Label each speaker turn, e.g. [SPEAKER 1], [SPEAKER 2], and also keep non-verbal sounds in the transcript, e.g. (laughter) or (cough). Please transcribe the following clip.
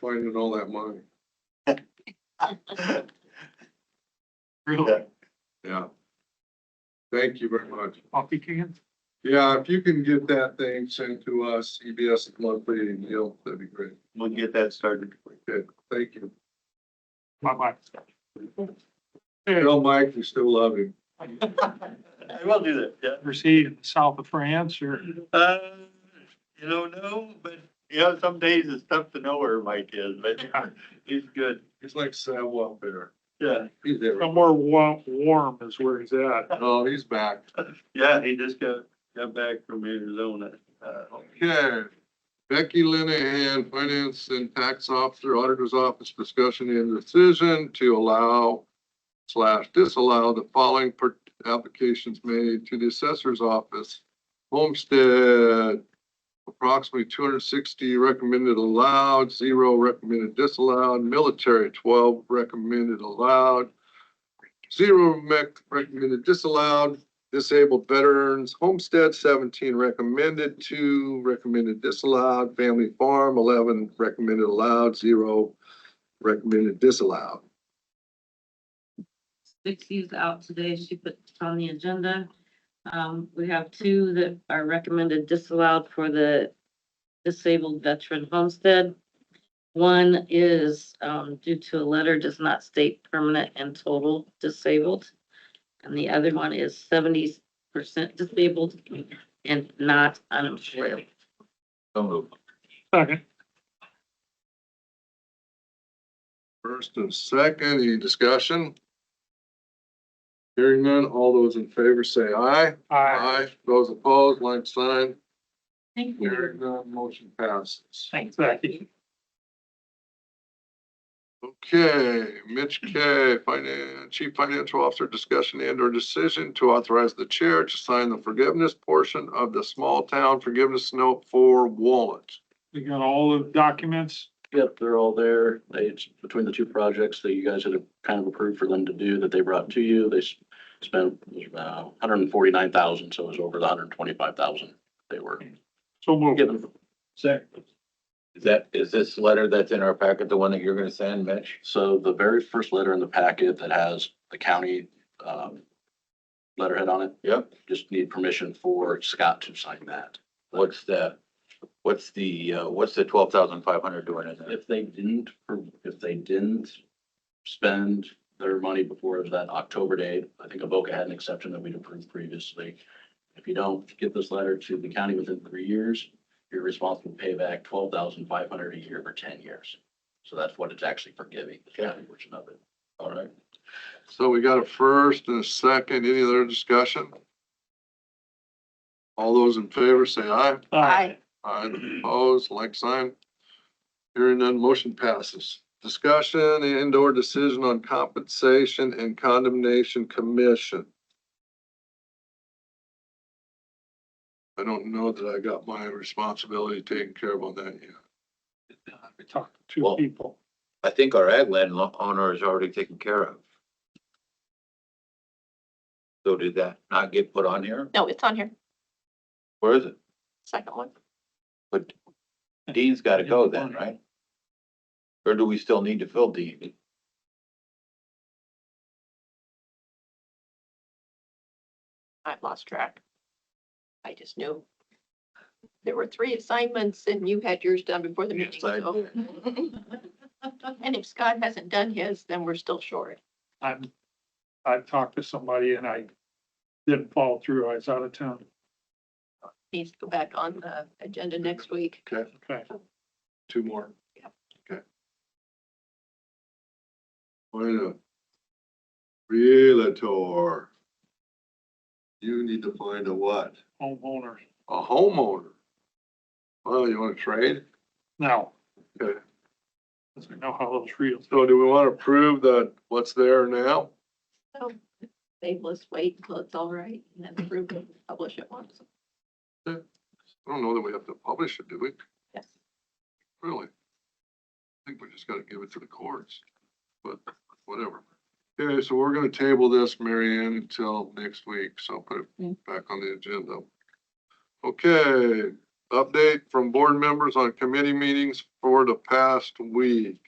[SPEAKER 1] finding all that money.
[SPEAKER 2] Really?
[SPEAKER 1] Yeah. Thank you very much.
[SPEAKER 2] Coffee cans?
[SPEAKER 1] Yeah, if you can get that thing sent to us, E EBS monthly, and you'll, that'd be great.
[SPEAKER 3] We'll get that started.
[SPEAKER 1] Thank you.
[SPEAKER 2] Bye-bye.
[SPEAKER 1] Tell Mike we still love him.
[SPEAKER 3] I will do that, yeah.
[SPEAKER 2] Ever see in the south of France or?
[SPEAKER 3] Uh, you don't know, but, you know, some days it's tough to know where Mike is, but (laughs) he's good,
[SPEAKER 1] He's like Samuel Bear.
[SPEAKER 3] yeah.
[SPEAKER 1] He's there.
[SPEAKER 2] Somewhere warm, warm is where he's at.
[SPEAKER 1] Oh, he's back.
[SPEAKER 3] Yeah, he just got, got back from Arizona. Uh,
[SPEAKER 1] Okay. Becky Linehan, Finance and Tax Officer, Auditor's Office, discussion and decision to allow slash disallow the following per- applications made to the assessor's office. Homestead, approximately two hundred sixty recommended allowed, zero recommended disallowed, military twelve recommended allowed, zero mec- recommended disallowed, Disabled Veterans Homestead, seventeen recommended, two recommended disallowed, Family Farm, eleven recommended allowed, zero recommended disallowed.
[SPEAKER 4] Dixie's out today. She put it on the agenda. Um, we have two that are recommended disallowed for the disabled veteran homestead. One is, um, due to a letter does not state permanent and total disabled. And the other one is seventy percent disabled and not unemployed.
[SPEAKER 2] Second.
[SPEAKER 1] First and second, any discussion? Hearing none, all those in favor say aye.
[SPEAKER 2] Aye.
[SPEAKER 1] Those opposed, like sign.
[SPEAKER 4] Thank
[SPEAKER 1] Hearing none, motion passes.
[SPEAKER 2] Thanks, Becky.
[SPEAKER 1] Okay, Mitch K, Finan- Chief Financial Officer, discussion and or decision to authorize the chair to sign the forgiveness portion of the small town forgiveness note for Wallet.
[SPEAKER 2] We got all the documents.
[SPEAKER 5] Yep, they're all there. They, it's between the two projects that you guys had kind of approved for them to do that they brought to you, they s- spent uh hundred and forty-nine thousand, so it was over the hundred and twenty-five thousand they were
[SPEAKER 2] So moved.
[SPEAKER 5] given.
[SPEAKER 6] Is that, is this letter that's in our packet the one that you're gonna send, Mitch?
[SPEAKER 5] So the very first letter in the packet that has the county um letterhead on it,
[SPEAKER 6] Yep.
[SPEAKER 5] just need permission for Scott to sign that.
[SPEAKER 6] What's the, what's the, uh, what's the twelve thousand five hundred doing in there?
[SPEAKER 5] If they didn't, if they didn't spend their money before that October date, I think Avoca had an exception that we'd approved previously. If you don't get this letter to the county within three years, you're responsible to pay back twelve thousand five hundred a year for ten years. So that's what it's actually forgiving, the county portion of it.
[SPEAKER 6] All right.
[SPEAKER 1] So we got a first and a second. Any other discussion? All those in favor say aye.
[SPEAKER 2] Aye.
[SPEAKER 1] Aye, opposed, like sign. Hearing none, motion passes. Discussion and or decision on compensation and condemnation commission. I don't know that I got my responsibility taken care of on that yet.
[SPEAKER 2] We talked to two
[SPEAKER 6] Well-
[SPEAKER 2] people.
[SPEAKER 6] I think our ag land lo- owner is already taken care of. So did that not get put on here?
[SPEAKER 7] No, it's on here,
[SPEAKER 6] Where is it?
[SPEAKER 7] second one.
[SPEAKER 6] But Dean's gotta go then, right? Or do we still need to fill Dean?
[SPEAKER 7] I've lost track. I just knew. There were three assignments and you had yours done before the meeting,
[SPEAKER 6] Yes, I
[SPEAKER 7] so. (laughs) And if Scott hasn't done his, then we're still short.
[SPEAKER 2] I'm, I talked to somebody and I didn't follow through. I was out of town.
[SPEAKER 7] Needs to go back on the agenda next week.
[SPEAKER 1] Okay,
[SPEAKER 2] Okay.
[SPEAKER 1] two more.
[SPEAKER 7] Yep.
[SPEAKER 1] Okay. Wait a. Realtor. You need to find a what?
[SPEAKER 2] Homeowner.
[SPEAKER 1] A homeowner. Well, you wanna trade?
[SPEAKER 2] Now.
[SPEAKER 1] Okay.
[SPEAKER 2] Doesn't know how those reels.
[SPEAKER 1] So do we wanna prove that what's there now?
[SPEAKER 7] So they us wait until it's all right and then the group can publish it once.
[SPEAKER 1] I don't know that we have to publish it, do we?
[SPEAKER 7] Yes.
[SPEAKER 1] Really? I think we just gotta give it to the courts, but whatever. Okay, so we're gonna table this, Mary Ann, until next week, so I'll put it back on the agenda. Okay, Update from board members on committee meetings for the past week.